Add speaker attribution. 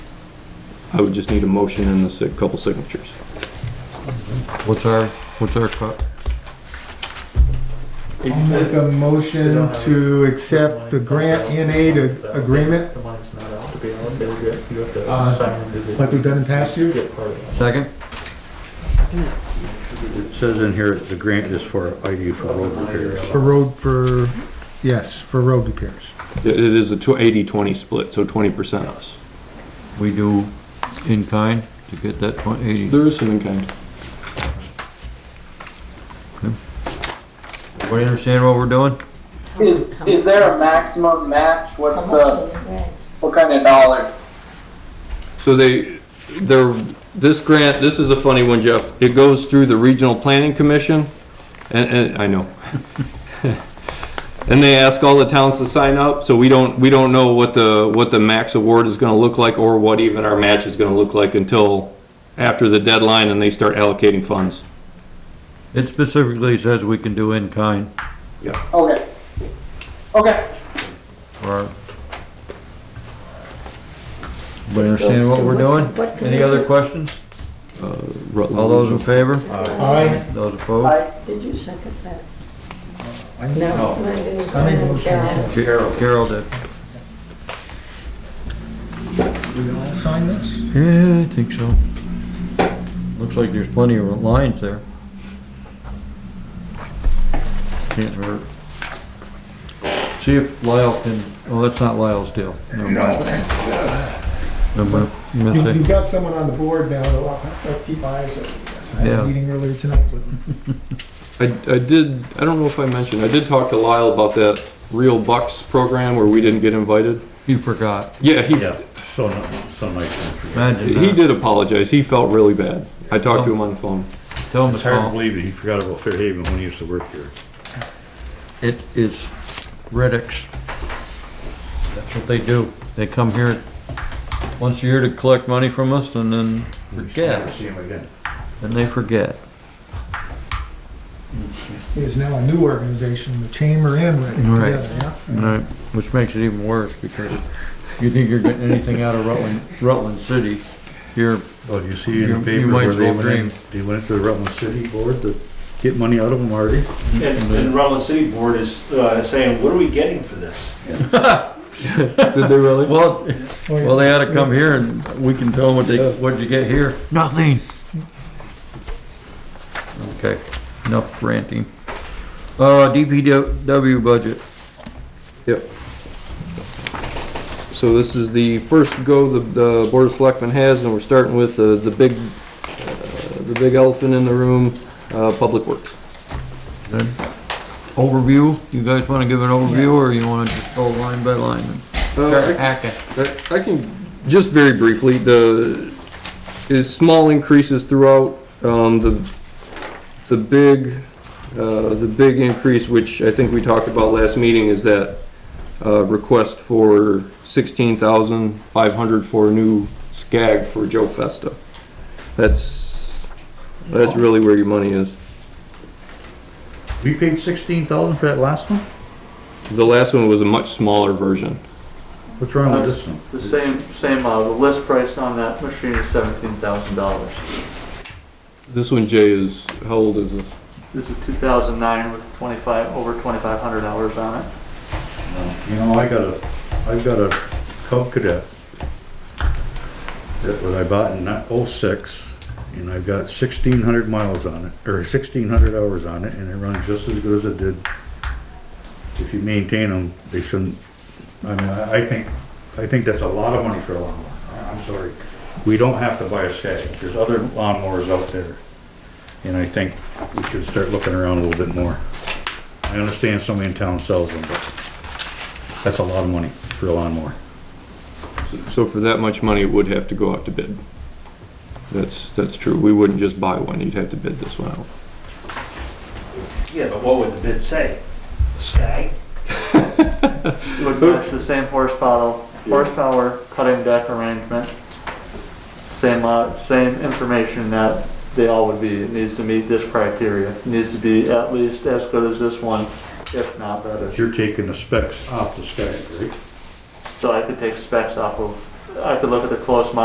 Speaker 1: I would just need a motion and a si- couple signatures.
Speaker 2: What's our, what's our cut?
Speaker 3: I'll make a motion to accept the grant E in aid ag- agreement,
Speaker 4: The mine's not out to be on, they'll get, you have to
Speaker 3: Uh,
Speaker 4: sign them.
Speaker 3: like we've done in past years.
Speaker 4: Get part of
Speaker 2: Second?
Speaker 5: It says in here, the grant is for ID for road repairs.
Speaker 3: For road, for, yes, for road repairs.
Speaker 1: It it is a tw- 80-20 split, so 20% us.
Speaker 2: We do in kind to get that twenty eighty.
Speaker 1: There is some in kind.
Speaker 2: Everybody understand what we're doing?
Speaker 6: Is, is there a maximum match? What's the, what kind of dollars?
Speaker 1: So they, they're, this grant, this is a funny one, Jeff. It goes through the Regional Planning Commission, and, and, I know. And they ask all the towns to sign up, so we don't, we don't know what the, what the max award is gonna look like or what even our match is gonna look like until after the deadline and they start allocating funds.
Speaker 2: It specifically says we can do in kind
Speaker 6: Okay. Okay.
Speaker 2: or. Everybody understand what we're doing? Any other questions?
Speaker 1: Rutland
Speaker 2: All those in favor?
Speaker 3: I,
Speaker 2: Those opposed?
Speaker 6: I,
Speaker 7: Did you second that?
Speaker 3: I
Speaker 7: No.
Speaker 3: I made a motion.
Speaker 2: Carol. Carol did.
Speaker 3: sign this?
Speaker 2: Yeah, I think so. Looks like there's plenty of lines there. Can't hurt. See if Lyle can, oh, that's not Lyle's deal. No, that's.
Speaker 3: You- You've
Speaker 2: Missing,
Speaker 3: got someone on the board now that I'll I'll keep my eyes on. I had
Speaker 2: Yeah.
Speaker 3: a meeting earlier tonight with them.
Speaker 1: I, I did, I don't know if I mentioned, I did talk to Lyle about that Real Bucks program where we didn't get invited.
Speaker 2: you forgot.
Speaker 1: Yeah, he,
Speaker 5: Yeah, so, ni- so nice.
Speaker 1: he
Speaker 2: Imagine that.
Speaker 1: did apologize. He felt really bad. I talked to him on the phone.
Speaker 2: Tell him to
Speaker 5: It's hard to
Speaker 2: call.
Speaker 5: believe that he forgot about Fairhaven when he used to work here.
Speaker 2: It is Reddick's. That's what they do. They come here once a year to collect money from us and then
Speaker 5: Never
Speaker 2: forget,
Speaker 5: see him again.
Speaker 2: and they forget.
Speaker 3: There's now a new organization, the Chamber and Reading
Speaker 2: Right.
Speaker 3: together, yeah.
Speaker 2: Right, which makes it even worse because you think you're getting anything out of Rutland, Rutland City, you're,
Speaker 5: Oh, do you see in
Speaker 2: You-
Speaker 5: the
Speaker 2: you
Speaker 5: paper
Speaker 2: might
Speaker 5: where they
Speaker 2: as well
Speaker 5: went in, they went into the Rutland City Board to get money out of them already?
Speaker 4: it. And, and Rutland City Board is, uh, saying, what are we getting for this?
Speaker 1: Did they really?
Speaker 2: well,
Speaker 3: Oh, yeah.
Speaker 2: well, they ought to come here and we can tell them what they, what'd you get here? Nothing. Okay, enough ranting. Uh, DPW budget,
Speaker 1: Yep. So this is the first go the, the Board of Selectmen has, and we're starting with the, the big, uh, the big elephant in the room, uh, Public Works.
Speaker 2: overview, you guys wanna give an overview or you wanna just go line by line and start hacking?
Speaker 1: Uh, I I can, just very briefly, the, is small increases throughout, um, the, the big, uh, the big increase, which I think we talked about last meeting, is that, uh, request for sixteen thousand five hundred for a new SCAG for Joe Festa. That's, that's really where your money is.
Speaker 5: We paid sixteen thousand for that last one?
Speaker 1: The last one was a much smaller version.
Speaker 5: What's wrong with this one?
Speaker 4: The same, same, uh, the list price on that machine is seventeen thousand dollars.
Speaker 1: This one, Jay, is, how old is this?
Speaker 4: This is two thousand nine with twenty-five, over twenty-five hundred hours on it.
Speaker 5: You know, I got a, I've got a Cub Cadet that was I bought in oh-six, and I've got sixteen hundred miles on it, or sixteen hundred hours on it, and it runs just as good as it did. If you maintain them, they shouldn't, I mean, I, I think, I think that's a lot of money for a lawnmower, I- I'm sorry. We don't have to buy a Skag, there's other lawnmowers out there, and I think we should start looking around a little bit more. I understand somebody in town sells them, but that's a lot of money for a lawnmower.
Speaker 1: So for that much money, it would have to go out to bid. That's, that's true. We wouldn't just buy one, you'd have to bid this one out.
Speaker 8: Yeah, but what would the bid say? Sky?
Speaker 4: It would match the same horsepower, horsepower cutting deck arrangement. Same, uh, same information that they all would be, it needs to meet this criteria, It needs to be at least as good as this one, if not better.
Speaker 5: But you're taking the specs off the Skag, right?
Speaker 4: So I could take specs off of, I could look at the close model